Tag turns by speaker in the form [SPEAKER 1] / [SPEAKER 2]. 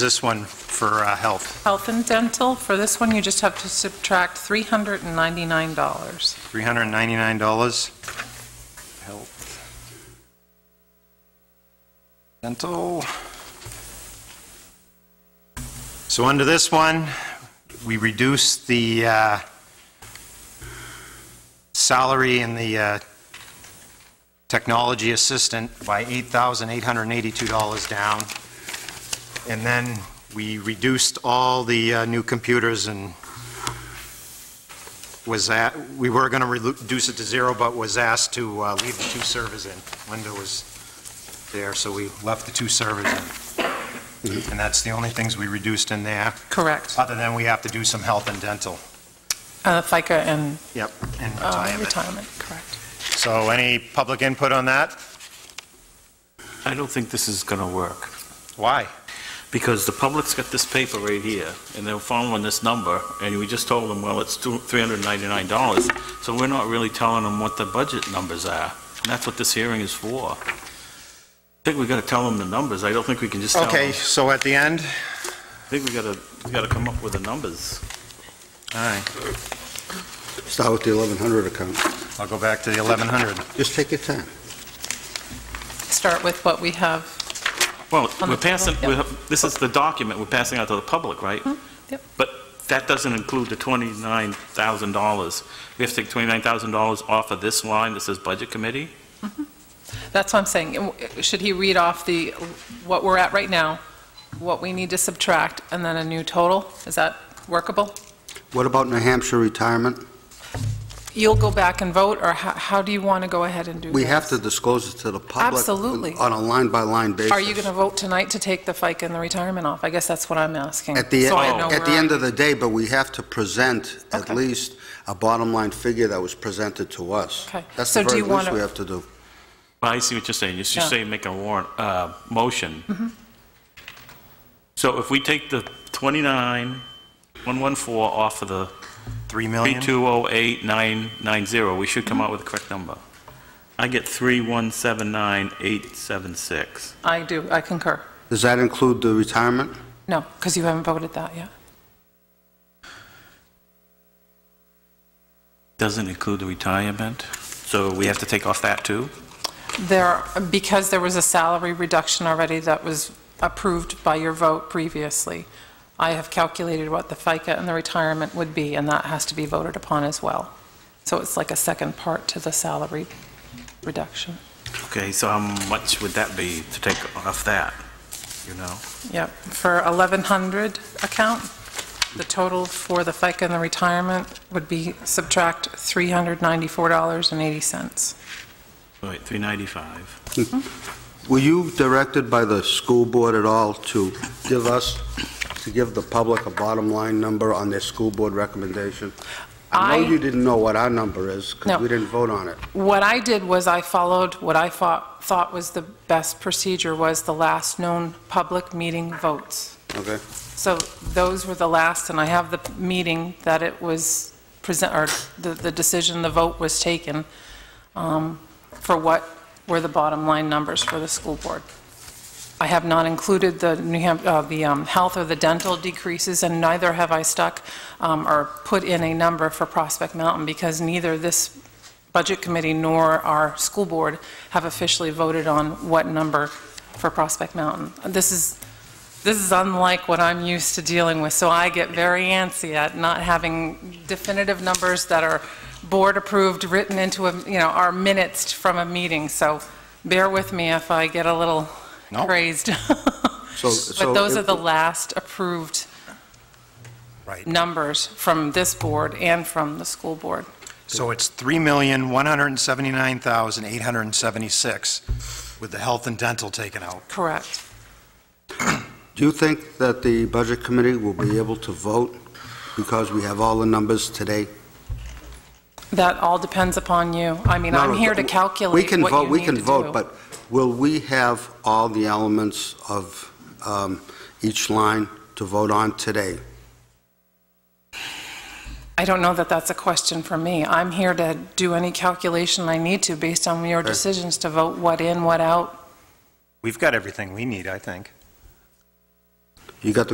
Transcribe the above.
[SPEAKER 1] This one for uh, health,
[SPEAKER 2] Health and dental, for this one, you just have to subtract $399.
[SPEAKER 1] $399. Health. Dental. So under this one, we reduce the uh, salary in the uh, technology assistant by $8,882 down. And then we reduced all the uh, new computers and was that, we were going to reduce it to zero, but was asked to uh, leave the two servers in. Linda was there, so we left the two servers in. And that's the only things we reduced in there,
[SPEAKER 2] Correct.
[SPEAKER 1] other than we have to do some health and dental.
[SPEAKER 2] Uh, FICA and
[SPEAKER 1] Yep. And
[SPEAKER 2] uh,
[SPEAKER 1] retirement.
[SPEAKER 2] retirement, correct.
[SPEAKER 1] So any public input on that?
[SPEAKER 3] I don't think this is going to work,
[SPEAKER 1] Why?
[SPEAKER 3] because the public's got this paper right here, and they're following this number, and we just told them, well, it's two- $399, so we're not really telling them what the budget numbers are, and that's what this hearing is for. I think we got to tell them the numbers, I don't think we can just tell them.
[SPEAKER 1] Okay, so at the end,
[SPEAKER 3] I think we got to, we got to come up with the numbers.
[SPEAKER 1] all right,
[SPEAKER 4] Start with the 1,100 account.
[SPEAKER 1] I'll go back to the 1100.
[SPEAKER 4] Just take your time.
[SPEAKER 2] Start with what we have.
[SPEAKER 3] Well,
[SPEAKER 2] On the
[SPEAKER 3] we're passing,
[SPEAKER 2] table,
[SPEAKER 3] we
[SPEAKER 2] yep.
[SPEAKER 3] have- this is the document we're passing out to the public, right?
[SPEAKER 2] Mm-hmm, yep.
[SPEAKER 3] But that doesn't include the $29,000. We have to take $29,000 off of this line that says Budget Committee?
[SPEAKER 2] That's what I'm saying. Uh, Should he read off the, what we're at right now, what we need to subtract, and then a new total? Is that workable?
[SPEAKER 4] What about New Hampshire retirement?
[SPEAKER 2] You'll go back and vote, or how, how do you want to go ahead and do this?
[SPEAKER 4] We have to disclose it to the public.
[SPEAKER 2] Absolutely.
[SPEAKER 4] On a line-by-line basis.
[SPEAKER 2] Are you going to vote tonight to take the FICA and the retirement off? I guess that's what I'm asking.
[SPEAKER 4] At the,
[SPEAKER 2] So I know
[SPEAKER 4] at the
[SPEAKER 2] where
[SPEAKER 4] end
[SPEAKER 2] I-
[SPEAKER 4] of the day, but we have to present at
[SPEAKER 2] Okay.
[SPEAKER 4] least a bottom-line figure that was presented to us.
[SPEAKER 2] Okay.
[SPEAKER 4] That's
[SPEAKER 2] So
[SPEAKER 4] the
[SPEAKER 2] do
[SPEAKER 4] very
[SPEAKER 2] you wanna-
[SPEAKER 4] least we have to do.
[SPEAKER 3] Well, I see what you're saying. You're
[SPEAKER 2] Yeah.
[SPEAKER 3] just saying make a warrant, uh, motion. So if we take the 29,114 off of the
[SPEAKER 1] 3 million?
[SPEAKER 3] 3208990, we should come out with the correct number. I get 3179876.
[SPEAKER 2] I do, I concur.
[SPEAKER 4] Does that include the retirement?
[SPEAKER 2] No, because you haven't voted that yet.
[SPEAKER 3] Doesn't include the retirement, so we have to take off that too?
[SPEAKER 2] There, because there was a salary reduction already that was approved by your vote previously, I have calculated what the FICA and the retirement would be, and that has to be voted upon as well. So it's like a second part to the salary reduction.
[SPEAKER 3] Okay, so how much would that be to take off that, you know?
[SPEAKER 2] Yep, for 1,100 account, the total for the FICA and the retirement would be subtract $394.80.
[SPEAKER 3] Right, 395.
[SPEAKER 4] Were you directed by the school board at all to give us, to give the public a bottom-line number on their school board recommendation? I
[SPEAKER 2] I-
[SPEAKER 4] know you didn't know what our number is,
[SPEAKER 2] No.
[SPEAKER 4] because we didn't vote on it.
[SPEAKER 2] What I did was I followed what I thought, thought was the best procedure was the last known public meeting votes.
[SPEAKER 4] Okay.
[SPEAKER 2] So those were the last, and I have the meeting that it was present, or the, the decision, the vote was taken um, for what were the bottom line numbers for the school board. I have not included the New Hampshire, uh, the um, health or the dental decreases, and neither have I stuck um, or put in a number for Prospect Mountain because neither this budget committee nor our school board have officially voted on what number for Prospect Mountain. This is, this is unlike what I'm used to dealing with, so I get very antsy at not having definitive numbers that are board-approved, written into, a you know, are minutes from a meeting, so bear with me if I get a little
[SPEAKER 1] No.
[SPEAKER 2] crazed.
[SPEAKER 4] So- so
[SPEAKER 2] But those are
[SPEAKER 4] if-
[SPEAKER 2] the last approved
[SPEAKER 1] Right.
[SPEAKER 2] numbers from this board and from the school board.
[SPEAKER 1] So it's 3,179,876 with the health and dental taken out.
[SPEAKER 2] Correct.
[SPEAKER 4] Do you think that the Budget Committee will be able to vote because we have all the numbers today?
[SPEAKER 2] That all depends upon you. I mean, I'm
[SPEAKER 4] No, no,
[SPEAKER 2] here to
[SPEAKER 4] we-
[SPEAKER 2] calculate
[SPEAKER 4] we
[SPEAKER 2] what you
[SPEAKER 4] can
[SPEAKER 2] need to
[SPEAKER 4] vote-
[SPEAKER 2] do.
[SPEAKER 4] We can vote, but will we have all the elements of um, each line to vote on today?
[SPEAKER 2] I don't know that that's a question for me. I'm here to do any calculation I need to based on your decisions to vote what in, what out.
[SPEAKER 1] We've got everything we need, I think.
[SPEAKER 4] You got the